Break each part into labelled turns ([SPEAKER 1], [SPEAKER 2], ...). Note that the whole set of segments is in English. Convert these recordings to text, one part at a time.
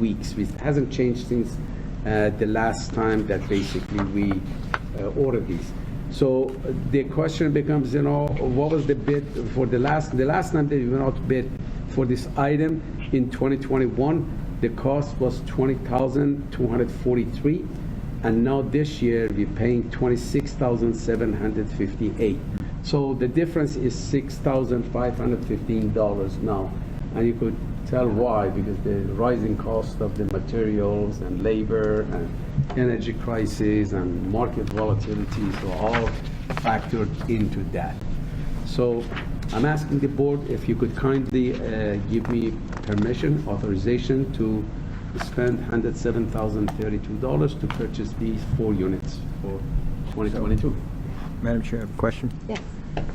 [SPEAKER 1] weeks, which hasn't changed since uh, the last time that basically we uh, ordered these. So uh, the question becomes, you know, what was the bid for the last, the last time that we went out to bid for this item in 2021, the cost was 20,243, and now this year, we're paying 26758 So the difference is $6,515 now. And you could tell why, because the rising cost of the materials and labor and energy crisis and market volatility, so all factored into that. So I'm asking the board if you could kindly uh, give me permission, authorization to spend $107,032 to purchase these four units for 2022.
[SPEAKER 2] Madam Chair, I have a question.
[SPEAKER 3] Yes.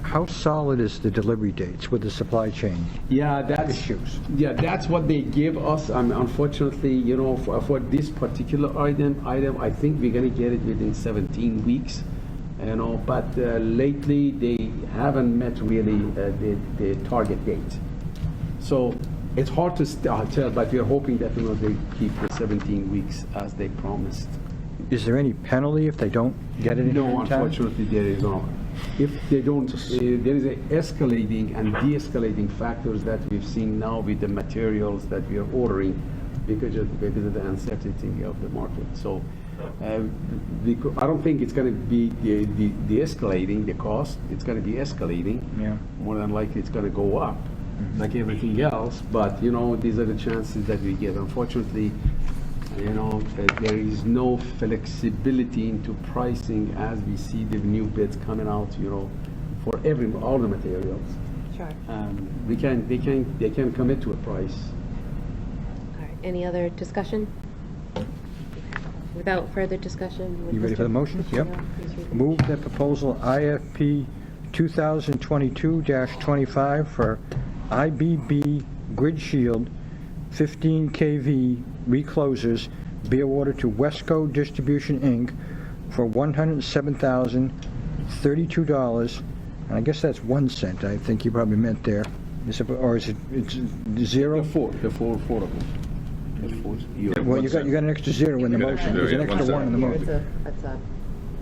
[SPEAKER 2] How solid is the delivery dates with the supply chain?
[SPEAKER 1] Yeah, that's,
[SPEAKER 2] Issues.
[SPEAKER 1] yeah, that's what they give us. Um, Unfortunately, you know, for for this particular item, item, I think we're going to get it within 17 weeks, you know, but uh, lately, they haven't met really uh, the the target date. So it's hard to st- uh, tell, but we're hoping that, you know, they keep the 17 weeks as they promised.
[SPEAKER 2] Is there any penalty if they don't get it in
[SPEAKER 1] No,
[SPEAKER 2] time?
[SPEAKER 1] unfortunately, there is no. If they don't, uh, there is a escalating and de-escalating factors that we've seen now with the materials that we are ordering because of, because of the uncertainty of the market. So, uh, we co- I don't think it's gonna be de- de- de-escalating, the cost, it's gonna be escalating.
[SPEAKER 2] Yeah.
[SPEAKER 1] More than likely, it's gonna go up, like everything else, but, you know, these are the chances that we get. Unfortunately, you know, that there is no flexibility into pricing as we see the new bids coming out, you know, for every, all the materials.
[SPEAKER 3] Sure.
[SPEAKER 1] Um, We can, they can, they can commit to a price.
[SPEAKER 3] All right. Any other discussion? Without further discussion? would
[SPEAKER 2] You ready
[SPEAKER 3] Mr.
[SPEAKER 2] for the motion?
[SPEAKER 3] Mr.
[SPEAKER 2] Yep.
[SPEAKER 3] Yao please read the-
[SPEAKER 2] Move that proposal IFP 2022-25 for IBB Grid Shield 15 kV reclosers be awarded to Wesco Distribution, Inc. for $107,032. And I guess that's 1 cent, I think you probably meant there. Is it- Or is it, it's
[SPEAKER 1] The
[SPEAKER 2] zero?
[SPEAKER 1] four, the four, four of them. The four, you-
[SPEAKER 2] Well, you got, you got an extra zero in the
[SPEAKER 4] Yeah,
[SPEAKER 2] motion.
[SPEAKER 4] yeah,
[SPEAKER 2] There's an
[SPEAKER 4] yeah,
[SPEAKER 2] extra
[SPEAKER 4] one
[SPEAKER 2] one in the
[SPEAKER 3] Here, it's
[SPEAKER 2] motion.
[SPEAKER 3] a, it's a,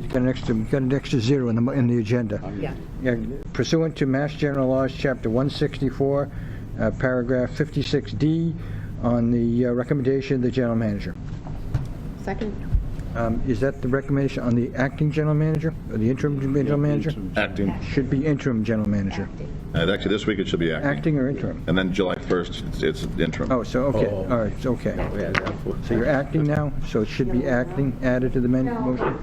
[SPEAKER 2] You got an extra, you got an extra zero in the, mo- in the agenda.
[SPEAKER 3] yeah.
[SPEAKER 2] Yeah, Pursuant to Mass General Laws, Chapter 164, uh, Paragraph 56D, on the uh, recommendation of the general manager.
[SPEAKER 3] Second?
[SPEAKER 2] Um, Is that the recommendation on the acting general manager, or the interim general manager?
[SPEAKER 4] Acting.
[SPEAKER 2] Should be interim general manager.
[SPEAKER 4] Uh, Actually, this week it should be acting.
[SPEAKER 2] Acting or interim?
[SPEAKER 4] And then July 1st, it's it's interim.
[SPEAKER 2] Oh, so, okay,
[SPEAKER 1] Oh.
[SPEAKER 2] all right, it's okay.
[SPEAKER 1] Yeah, that four.
[SPEAKER 2] So you're acting now, so it should be acting added to the men-
[SPEAKER 5] No,
[SPEAKER 2] motion?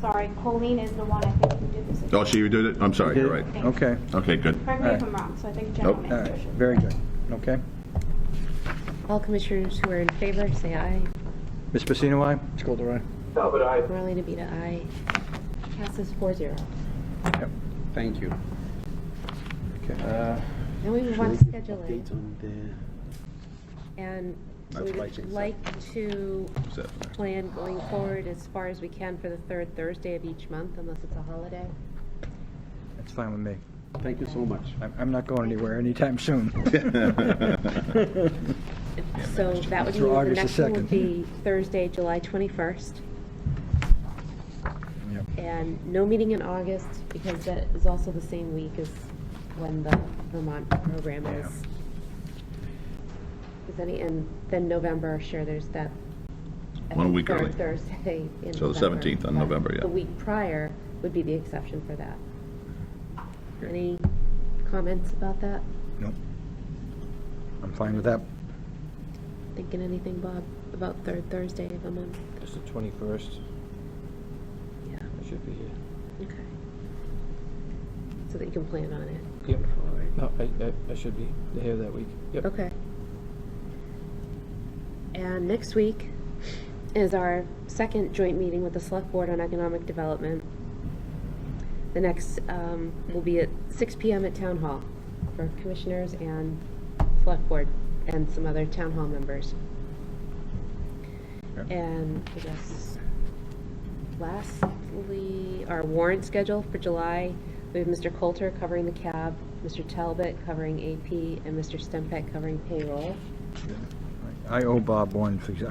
[SPEAKER 5] sorry, Colleen is the one I think who did this.
[SPEAKER 4] Oh, she, you did it? I'm sorry, you're right.
[SPEAKER 2] Okay,
[SPEAKER 4] Okay, good.
[SPEAKER 5] Correct me if I'm wrong, so I think general
[SPEAKER 4] Nope.
[SPEAKER 2] all right,
[SPEAKER 5] manager should.
[SPEAKER 2] very good, okay.
[SPEAKER 3] All commissioners who are in favor, say aye.
[SPEAKER 2] Ms. Pacino, aye? Ms. Golder, aye?
[SPEAKER 3] Marlena Beta, aye. Passes four zero.
[SPEAKER 1] Thank you.
[SPEAKER 2] Okay.
[SPEAKER 1] Uh,
[SPEAKER 3] Then we move
[SPEAKER 1] should
[SPEAKER 3] on
[SPEAKER 1] we
[SPEAKER 3] to
[SPEAKER 1] give
[SPEAKER 3] scheduling,
[SPEAKER 1] update on the-
[SPEAKER 3] and
[SPEAKER 4] That's
[SPEAKER 3] we
[SPEAKER 4] right,
[SPEAKER 3] would
[SPEAKER 4] it's-
[SPEAKER 3] like to
[SPEAKER 4] Is that-
[SPEAKER 3] plan going forward as far as we can for the third Thursday of each month, unless it's a holiday.
[SPEAKER 2] That's fine with me.
[SPEAKER 1] Thank you so much.
[SPEAKER 2] I'm- I'm not going anywhere anytime soon.
[SPEAKER 3] So that would
[SPEAKER 2] Through
[SPEAKER 3] mean the
[SPEAKER 2] August the
[SPEAKER 3] next one would
[SPEAKER 2] 2nd.
[SPEAKER 3] be Thursday, July 21st.
[SPEAKER 2] Yep.
[SPEAKER 3] And no meeting in August, because that is also the same week as when the Vermont program is. Is any, and then November, sure, there's that. I
[SPEAKER 4] One
[SPEAKER 3] think
[SPEAKER 4] week
[SPEAKER 3] third
[SPEAKER 4] early.
[SPEAKER 3] Thursday in
[SPEAKER 4] So the
[SPEAKER 3] November,
[SPEAKER 4] 17th on
[SPEAKER 3] but
[SPEAKER 4] November, yeah.
[SPEAKER 3] The week prior would be the exception for that. Any comments about that?
[SPEAKER 2] Nope. I'm fine with that.
[SPEAKER 3] Thinking anything, Bob, about third Thursday of the month?
[SPEAKER 6] It's the 21st.
[SPEAKER 3] Yeah.
[SPEAKER 6] I should be here.
[SPEAKER 3] Okay. So that you can plan on it.
[SPEAKER 6] Yep. No, I, I, I should be here that week. Yep.
[SPEAKER 3] Okay. And next week is our second joint meeting with the Select Board on Economic Development. The next um, will be at 6 PM at Town Hall for commissioners and Select Board and some other Town Hall members.
[SPEAKER 2] Okay.
[SPEAKER 3] And I guess lastly, our warrant schedule for July, we have Mr. Coulter covering the cab, Mr. Talbot covering AP, and Mr. Stempak covering payroll.
[SPEAKER 2] Right, I owe Bob one, for exa-